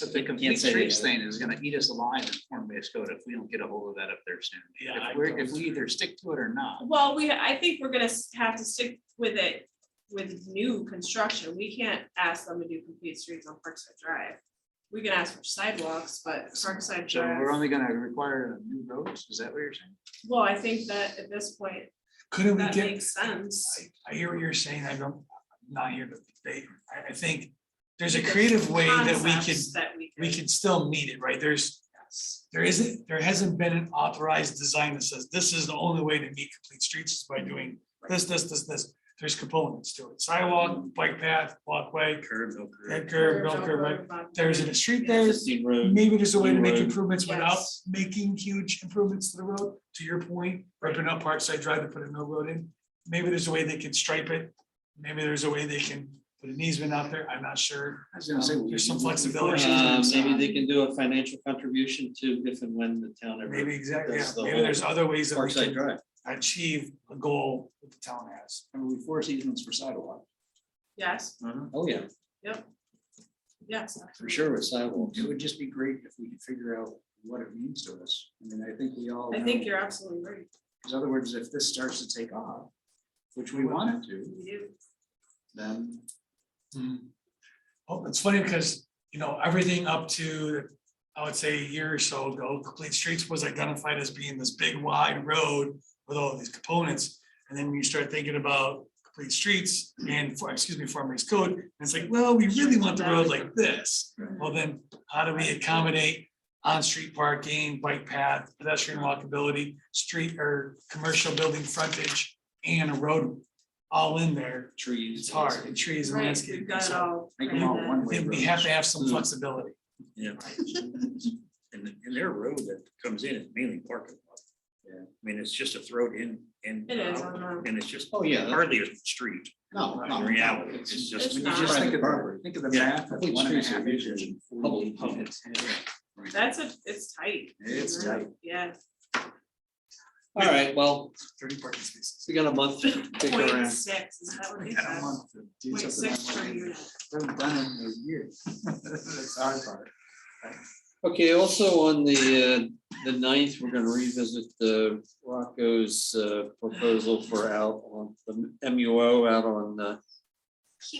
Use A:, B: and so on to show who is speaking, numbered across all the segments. A: But the complete
B: Can't say
A: streets
B: they-
A: thing is gonna eat us alive in form-based code if we don't get a hold of that up there soon.
C: Yeah, I
A: If we're, if
C: don't-
A: we either stick to it or not.
D: Well, we, I think we're gonna s- have to stick with it with new construction. We can't ask them to do complete streets on Parkside Drive. We can ask for sidewalks, but Parkside
A: So we're
D: Drive,
A: only gonna require new roads, is that what you're saying?
D: well, I think that at this point,
C: Couldn't we
D: that
C: get,
D: makes sense.
C: I, I hear what you're saying, I don't, I'm not here to debate, I, I think there's a creative way that we could,
D: Concepts That we
C: we
D: could,
C: can still meet it, right? There's, there isn't, there hasn't been an authorized design that says this is the only way to meet complete streets is by doing this, this, this, this. There's components to it, sidewalk, bike path, walkway,
E: Curb, no
C: head
E: curb.
C: curb, no curb, right? There's a street there,
B: Existing road.
C: maybe there's a way to make
B: Right.
C: improvements without
D: Yes.
C: making huge improvements to the road, to your point, ripping up Parkside Drive to put a no road in. Maybe there's a way they can stripe it, maybe there's a way they can put an easement out there, I'm not sure.
A: I was gonna say.
C: There's some
A: we-
C: flexibility.
B: Uh, maybe they can do a financial contribution to if and when the town ever.
C: Maybe exactly, yeah,
B: That's the
C: maybe there's other ways that we
B: Parkside
C: can
B: Drive.
C: achieve a goal that the town has.
A: I mean, we force easements for sidewalk.
D: Yes,
B: Oh, yeah,
D: yes.
B: for sure with sidewalks.
A: It would just be great if we could figure out what it means to us. I mean, I think we all.
D: I
A: know-
D: think you're absolutely right.
A: Because other words, if this starts to take off, which we want it to,
D: We do.
A: then.
C: Hmm. Well, it's funny because, you know, everything up to, I would say a year or so ago, Complete Streets was identified as being this big wide road with all these components. And then when you start thinking about Complete Streets and, for- excuse me, Farmers Code, and it's like, well, we really want the road like this. Well, then how do we accommodate on-street parking, bike path, pedestrian walkability, street or commercial building frontage and a road all in there?
B: Trees.
C: It's hard, and trees and
D: Right,
C: landscaping.
D: we've got it
C: so-
D: all.
A: Make them all
D: planned
A: one
D: out.
A: way
C: then we
A: roads.
C: have to have some
B: Mm.
C: flexibility.
E: Yeah. And, and their road that comes in is mainly parking. lot.
A: Yeah.
E: I mean, it's just a throat in, in.
D: It is,
E: out,
D: I know.
E: And it's just
B: Oh, yeah. that's-
E: hardly a street
A: No,
E: in reality. It's
D: It's
E: just.
A: When you just think of, the- think of the
E: Yeah.
A: math of one and a half acres. and 40
B: Public, public.
A: acres. Right.
D: That's a, it's tight.
A: It's tight.
D: Yeah.
B: All right, well,
C: Thirty parking spaces.
B: we got a month to dig
D: Point
B: around.
D: six, is that what they
A: We had a
D: said?
A: month to do
D: Point
A: something
D: six per
A: like that.
D: unit.
A: Haven't done it in a year. That's our part.
B: Okay, also on the, uh, the ninth, we're gonna revisit the Rocco's, uh, proposal for out on the M U O out on, uh,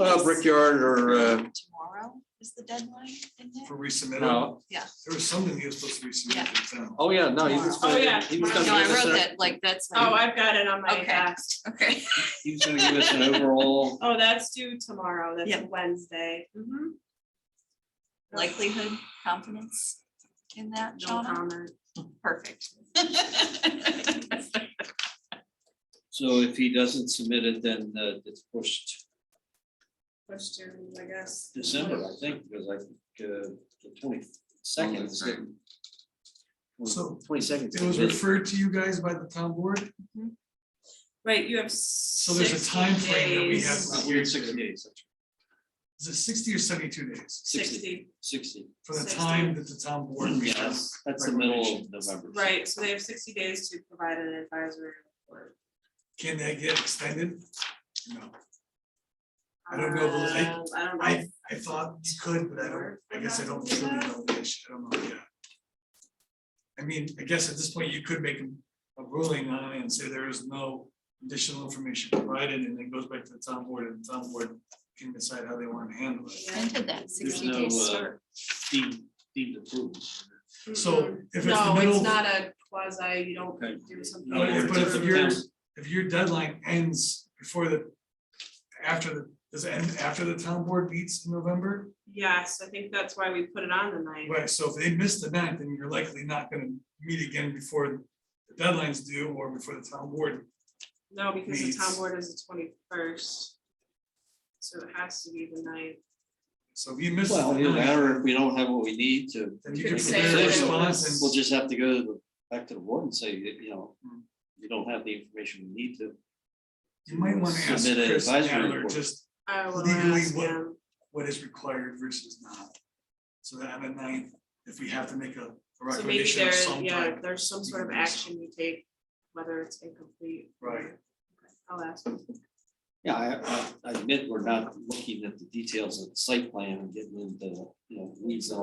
B: uh, Brickyard or, uh,
F: Tomorrow is the deadline, isn't it?
C: For resubmittal,
B: no,
C: there was something he was supposed to resubmit. to the town.
B: oh, yeah, no, he was
D: Oh,
B: gonna,
D: yeah.
B: he was
D: No,
B: gonna
F: No, I
B: give us,
F: wrote
B: a-
F: that, like, that's.
D: Oh,
F: like-
D: I've got it on my
F: Okay.
D: desk.
F: Okay.
B: he was gonna give us an overall
D: Oh, that's due tomorrow. That's a
F: Yeah. Mm-hmm.
D: Wednesday. Mhm.
F: Likelihood, confidence in that,
D: No
F: Shauna?
D: comment.
F: Perfect.
B: So if he doesn't submit it, then uh, it's pushed
D: Question, I guess.
B: December, I think, because I think uh, the twenty-second is getting.
C: So,
B: Twenty-second.
C: It was referred to you guys by the town board,
D: Right, you have
C: so there's a time
D: sixty
C: frame that we have.
D: days.
C: from
B: We're
C: here
B: at
C: to-
B: sixty days,
C: Is it sixty or seventy-two days
D: Sixty,
B: sixty.
C: for the
D: Sixty.
C: time that the town board?
B: Yeah, that's- that's the middle of November.
D: right, so they have sixty days to provide an advisory report.
C: Can that get extended? No, I don't know, but I-
D: Uh, I don't know.
C: I, I thought you could, but I don't, I guess I don't truly know the issue, I don't know, yeah. I mean, I guess at this point, you could make a ruling on it and say there is no additional information provided, and it goes back to the town board, and the town board can decide how they want to handle it.
F: When did that
B: There's
F: sixty
B: no
F: days
B: uh,
F: start?
B: deemed, deemed approved.
D: Mhm.
C: So if it's the
D: No, it's
C: middle,
D: not a quasi, you don't
B: Okay.
D: do something.
C: No, if- but
D: after.
C: if you're- if your deadline ends before the, after the, does it end after the town board meets in November?
D: Yes, I think that's why we put it on the ninth.
C: Right, so if they miss the ninth, then you're likely not gonna meet again before the deadline's due or before the town board
D: No, because the town
C: Meets.
D: board is the twenty-first. So it has to be the ninth.
C: So if you miss.
B: Well,
C: the
B: either
C: nine,
B: that or if we don't have what we need to.
C: Then you can
B: make a
D: say that it
B: decision,
C: was-
B: We'll just have to go to the, back to the board and say, you know,
C: Hmm.
B: you don't have the information we need to.
C: You might want to ask
B: Submit an
C: Chris
B: advisory
C: Adler
B: report.
C: just
D: I will
C: Legally,
D: ask
C: what-
D: him.
C: what is required versus not. So that on the ninth, if we have to make a a
D: So maybe
C: recommendation
D: there,
C: of some
D: yeah,
C: type.
D: there's some sort of
C: you can do
D: action you take, whether it's incomplete. or-
C: Right.
D: Okay, I'll ask. him.
B: Yeah, I, I- I admit we're not looking at the details of the site plan and getting into, you know, weeds and all